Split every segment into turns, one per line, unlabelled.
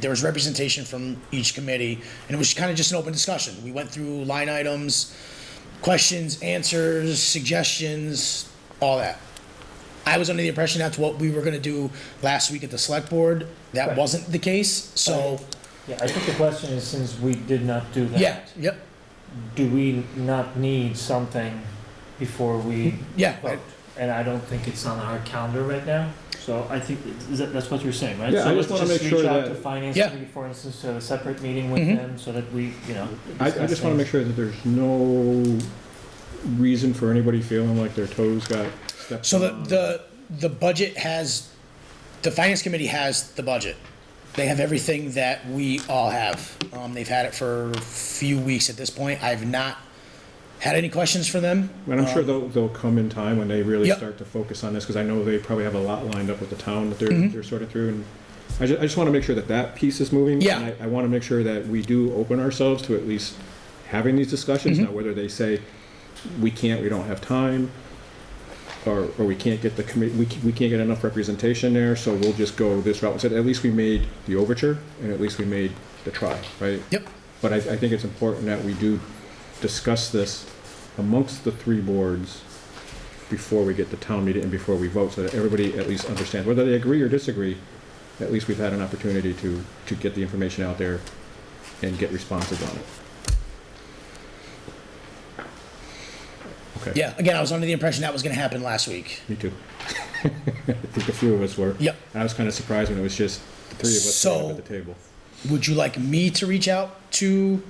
there was representation from each committee, and it was kind of just an open discussion. We went through line items, questions, answers, suggestions, all that. I was under the impression that's what we were gonna do last week at the select board. That
Right.
wasn't the case, so,
Yeah, I think the question is, since we did not do that.
yeah, yep,
Do we not need something before we
yeah.
vote? And I don't think it's on our calendar right now, so I think, is that, that's what you're saying, right?
Yeah,
So
I just
let's
wanna make
Reach
sure
out
that-
to finance
Yeah.
committee, for instance, to have a separate meeting with
Mhm.
them, so that we, you know.
I, I just want to make sure that there's no reason for anybody feeling like their toes got stepped
So the,
on.
the, the budget has, the finance committee has the budget. They have everything that we all have. Um, they've had it for a few weeks at this point. I've not had any questions for them.
And I'm sure they'll, they'll come in time when they really
Um, Yep.
start to focus on this, because I know they probably have a lot lined up with the town that
Mm-hmm.
they're, they're sort of through. And I ju- I just want to make sure that that piece is moving.
Yeah.
And I, I want to make sure that we do open ourselves to at least having these discussions.
Mm-hmm.
Now, whether they say, we can't, we don't have time, or, or we can't get the committee, we, ca- we can't get enough representation there, so we'll just go this route. Instead, at least we made the overture, and at least we made the try, right?
Yep,
But I, I think it's important that we do discuss this amongst the three boards before we get to town meeting and before we vote, so that everybody at least understands, whether they agree or disagree, at least we've had an opportunity to, to get the information out there and get responses on it. Okay,
yeah. Again, I was under the impression that was gonna happen last week.
me too. I think a few of us were.
Yep.
I was kind of surprised when it was just the three of us sitting up
So-
at the table.
Would you like me to reach out to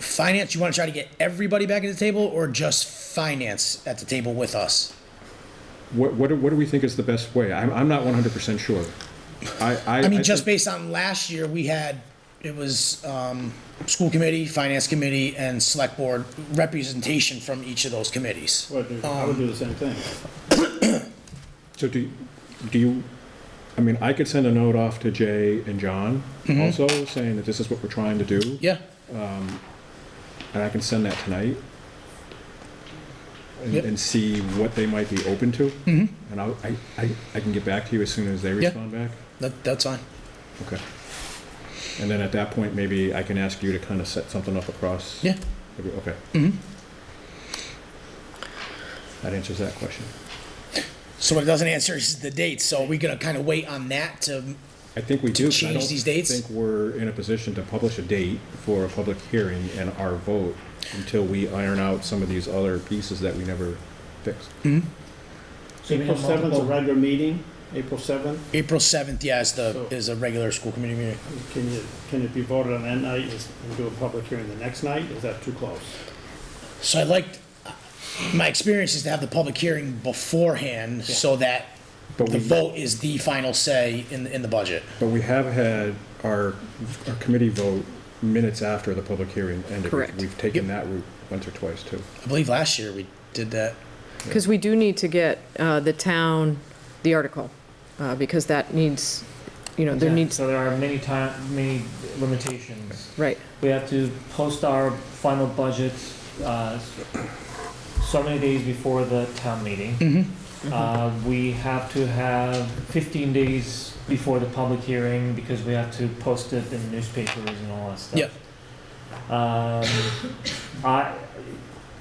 finance? You wanna try to get everybody back at the table or just finance at the table with us?
What, what do- what do we think is the best way? I'm, I'm not one hundred percent sure. I, I.
I mean,
think-
just based on last year, we had, it was, um, school committee, finance committee, and select board representation from each of those committees.
Well, dude, I would do the same thing.
So do, do you, I mean, I could send a note off to Jay and John
Mm-hmm.
also saying that this is what we're trying to do.
Yeah,
And I can send that tonight. And,
Yep.
and see what they might be open to. Mm-hmm. And I'll, I, I, I can get back to you as soon as they
Yeah.
respond back.
that, that's fine.
Okay. And then at that point, maybe I can ask you to kind of set something up across.
Yeah. Mm-hmm.
every- Okay. That answers that question.
So what it doesn't answer is the dates, so are we gonna kinda wait on that to,
I think we
to
do. 'cause I
change
don't
these dates?
think we're in a position to publish a date for a public hearing and our vote until we iron out some of these other pieces that we never fixed.
So we
April
have
seventh, a
multiple-
regular meeting, April seventh,
April seventh, yeah, is the,
So-
is a regular school committee meeting.
can you, can it be voted on that night is- and do a public hearing the next night? Is that too close?
So I liked, my experience is to have the public hearing beforehand, so that
But
the
we,
vote is the final say in, in the budget.
but we have had our, our committee vote minutes after the public hearing ended.
Correct.
We've taken that route once or twice too.
I believe last year we did that.
Because we do need to get uh, the town, the article, uh, because that needs, you know, there
Yeah,
needs,
So there are many time, many limitations.
right,
We have to post our final budget uh, so many days before the town meeting. Uh, We have to have 15 days before the public hearing because we have to post it in newspapers and all that stuff.
Yep.
Um, I,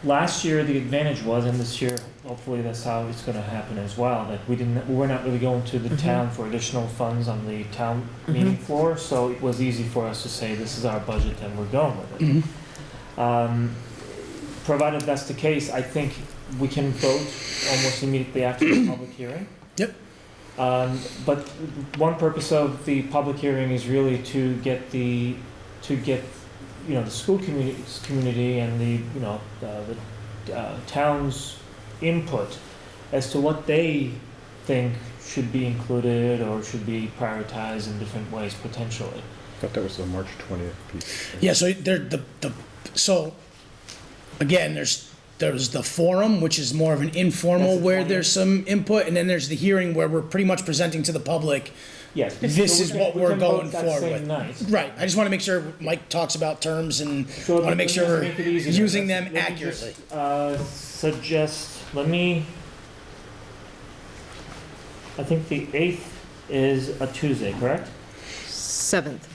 last year, the advantage was, and this year, hopefully that's how it's gonna happen as well, that we didn't, we're not really going to the town for additional funds on the town meeting floor, so it was easy for us to say, this is our budget and we're going with it. Um, Provided that's the case, I think we can vote almost immediately after the public hearing.
Yep.
Um, But one purpose of the public hearing is really to get the, to get, you know, the school community, community and the, you know, uh, the uh, town's input as to what they think should be included or should be prioritized in different ways potentially.
Thought that was the March twentieth piece.
Yeah, so there, the, the, so, again, there's, there's the forum, which is more of an informal
That's the
where
forum.
there's some input, and then there's the hearing where we're pretty much presenting to the public.
Yes.
This
so
is
we can-
what
we
we're
can vote
going
that
forward
same
with.
night.
Right, I just wanna make sure Mike talks about terms and
So
wanna
let
make
me
sure
just
we're
make it easier.
using
Let's-
them
let me just,
accurately.
Uh, suggest, let me, I think the eighth is a Tuesday, correct?
7th.